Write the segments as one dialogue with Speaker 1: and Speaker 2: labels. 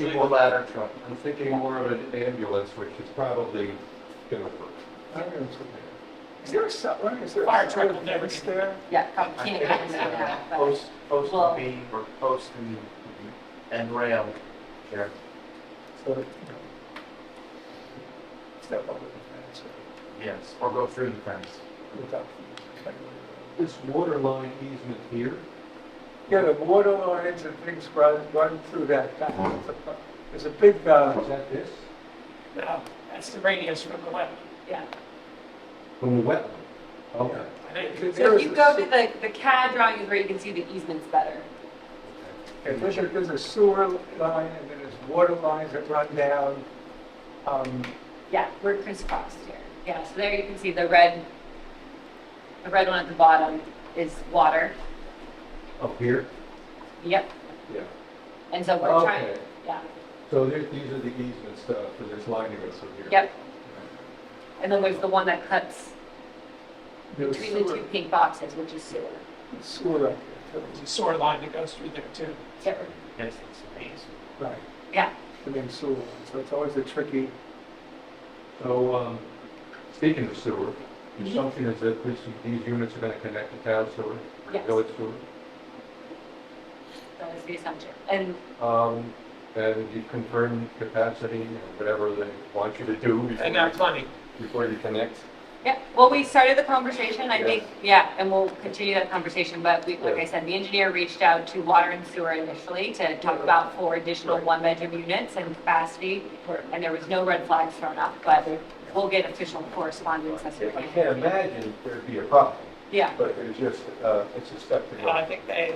Speaker 1: People ladder truck. I'm thinking more of an ambulance, which is probably gonna work.
Speaker 2: Is there a cellar, is there
Speaker 3: Fire
Speaker 2: a
Speaker 3: truck
Speaker 2: cellar
Speaker 3: will never
Speaker 2: fence there?
Speaker 3: Yeah, come, can't get in that, but
Speaker 4: Post, post
Speaker 3: Well-
Speaker 4: will be, or post and, and rail here.
Speaker 2: So, you know, Step over the fence
Speaker 4: Yes, or go through the fence.
Speaker 2: or without.
Speaker 1: This water line easement here,
Speaker 2: Yeah, the water lines and things run, run through that. That- It's a fu- There's a big, uh,
Speaker 1: is that this?
Speaker 3: no, that's the radius Um, from the wetland. Yeah.
Speaker 1: From the wetland? Okay.
Speaker 3: I think
Speaker 2: there-
Speaker 5: So
Speaker 2: there
Speaker 5: if
Speaker 2: is
Speaker 5: you
Speaker 2: a
Speaker 5: go
Speaker 2: se-
Speaker 5: to the, the CAD drawings where you can see the easements better.
Speaker 2: yeah, there's a, there's a sewer line and then there's water lines that run down. Um,
Speaker 5: Yeah, we're crisscrossed here. Yeah, so there you can see the red, the red one at the bottom is water.
Speaker 1: Up here?
Speaker 5: Yep.
Speaker 1: Yeah.
Speaker 5: And so we're trying,
Speaker 1: Okay.
Speaker 5: yeah,
Speaker 1: So there, these are the easement stuff for this line that goes through here?
Speaker 5: yep. And then there's the one that cuts
Speaker 2: there's
Speaker 5: between the two
Speaker 2: sewer,
Speaker 5: pink boxes, which is sewer.
Speaker 2: sewer up there,
Speaker 3: There's
Speaker 2: too.
Speaker 3: a sewer line that goes through there too.
Speaker 5: Yep,
Speaker 4: Yes, it's amazing.
Speaker 2: right,
Speaker 5: yeah.
Speaker 2: and then sewer. So it's always a tricky,
Speaker 1: So, um, speaking of sewer, the
Speaker 5: Mm-hmm.
Speaker 1: assumption is that this, these units are gonna connect to town sewer, or
Speaker 5: Yes.
Speaker 1: village sewer?
Speaker 5: That is the assumption. And
Speaker 1: Um, and you confirm capacity, and whatever they want you to do
Speaker 3: And that's
Speaker 1: before,
Speaker 3: funny.
Speaker 1: before you connect?
Speaker 5: Yeah, well, we started the conversation, I
Speaker 1: Yeah.
Speaker 5: think, yeah, and we'll continue that conversation, but we, like I said, the engineer reached out to water and sewer initially to talk about four additional
Speaker 1: Right.
Speaker 5: one-bedroom units and capacity, and there was no red flags thrown up, but we'll get official correspondence as we
Speaker 1: I
Speaker 5: can.
Speaker 1: can't imagine there'd be a problem,
Speaker 5: Yeah,
Speaker 1: but it's just, uh, it's a step to
Speaker 3: And I
Speaker 1: go.
Speaker 3: think they,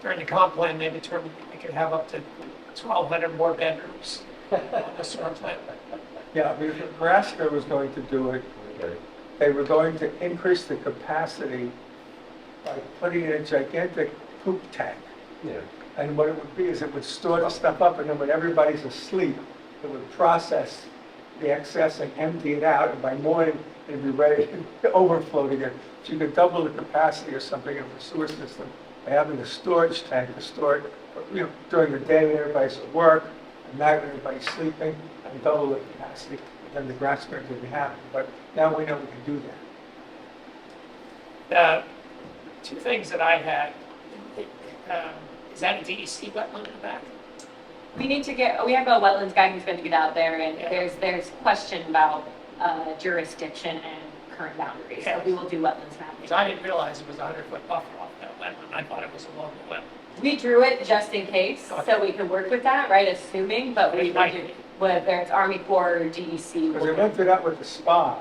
Speaker 3: during the comp plan, they determined they could have up to 1,200 more bedrooms on the sewer plant.
Speaker 2: yeah, I mean, if Nebraska was going to do it,
Speaker 1: Okay.
Speaker 2: they were going to increase the capacity by putting in a gigantic poop tank.
Speaker 1: Yeah.
Speaker 2: And what it would be is it would store the stuff up, and then when everybody's asleep, it would process the excess and empty it out, and by morning, it'd be ready to overflow again. So you could double the capacity or something of the sewer system by having a storage tank to store it, you know, during the day when everybody's at work, at night when everybody's sleeping, and double the capacity, then the grass spread would be happy. But now we know we can do that.
Speaker 3: The two things that I had, um, is that a DEC wetland in the back?
Speaker 5: we need to get, we have a wetlands guy who's gonna get out there, and
Speaker 3: Yeah.
Speaker 5: there's, there's question about uh, jurisdiction and current boundaries, so
Speaker 3: Yeah.
Speaker 5: we will do wetlands mapping.
Speaker 3: Because I didn't realize it was a 100-foot buffer off that wetland. I thought it was along the wetland.
Speaker 5: We drew it just in case, so we could work with that, right, assuming, but we would do, whether it's Army Corps or DEC.
Speaker 2: Because we
Speaker 5: we'll-
Speaker 2: went through that with the spa.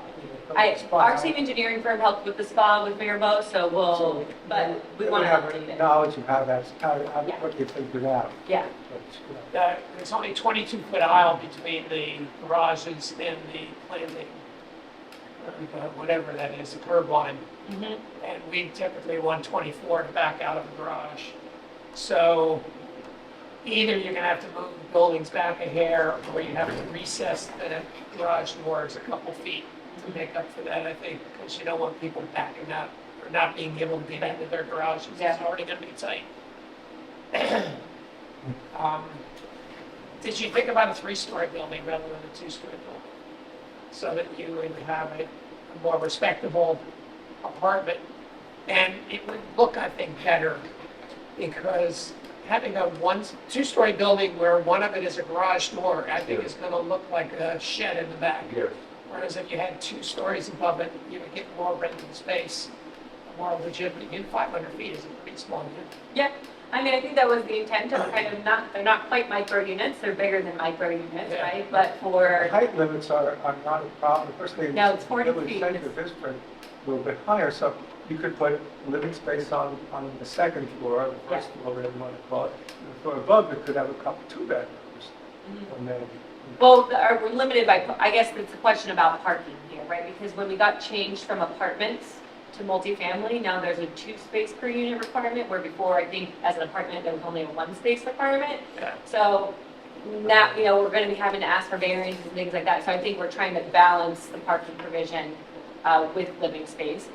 Speaker 5: I,
Speaker 2: Spa.
Speaker 5: our team engineering firm helped with the spa with Mayor Bo, so we'll, but Oh, we
Speaker 2: They
Speaker 5: want to
Speaker 2: have
Speaker 5: update it.
Speaker 2: Knowledge of how that's, how, how-
Speaker 5: Yeah.
Speaker 2: what they figured out.
Speaker 5: Yeah,
Speaker 2: But, you know,
Speaker 3: Uh, There's only 22-foot aisle between the garages and the landing, uh, whatever that is, the curb line.
Speaker 5: Mhm.
Speaker 3: and we typically want 24 to back out of the garage. So either you're gonna have to move the buildings back a hair, or you have to recess the garage doors a couple feet to make up for that, I think, because you don't want people backing up or not being able to get into their garages, it's
Speaker 5: Yeah.
Speaker 3: already gonna be tight. Um, Did you think about a three-story building rather than a two-story building? So that you would have a a more respectable apartment. And it would look, I think, better because having a one, two-story building where one of it is a garage door, I think is gonna look like a shed in the back.
Speaker 1: Yes.
Speaker 3: Whereas if you had two stories above it, you would get more rented space, more legitimate. Even 500 feet is a pretty small unit.
Speaker 5: yeah. I mean, I think that was the intent of kind of not, they're not quite micro units, they're bigger than micro units,
Speaker 3: Yeah.
Speaker 5: right? But for,
Speaker 2: Height limits are, are not a problem, especially. in
Speaker 5: No, it's 40
Speaker 2: Village
Speaker 5: feet.
Speaker 2: Center district, a little bit higher, so you could put living space on, on the second floor, or the first floor, whatever you want to call it. And The floor above, it could have a couple, two bedrooms,
Speaker 5: Mm-hmm.
Speaker 2: and then,
Speaker 5: well, the- are we limited by, I guess it's a question about parking here, right? Because when we got changed from apartments to multifamily, now there's a two space per unit requirement, where before, I think, as an apartment, there was only a one space requirement.
Speaker 3: Yeah.
Speaker 5: So now, you know, we're going to be having to ask for variances and things like that. So I think we're trying to balance the parking provision uh, with living space.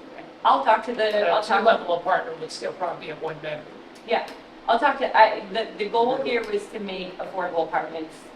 Speaker 5: I'll talk to the, I'll
Speaker 3: A
Speaker 5: talk,
Speaker 3: two-level apartment would still probably be a one-bedroom.
Speaker 5: yeah, I'll talk to, I, the, the goal here was to make affordable apartments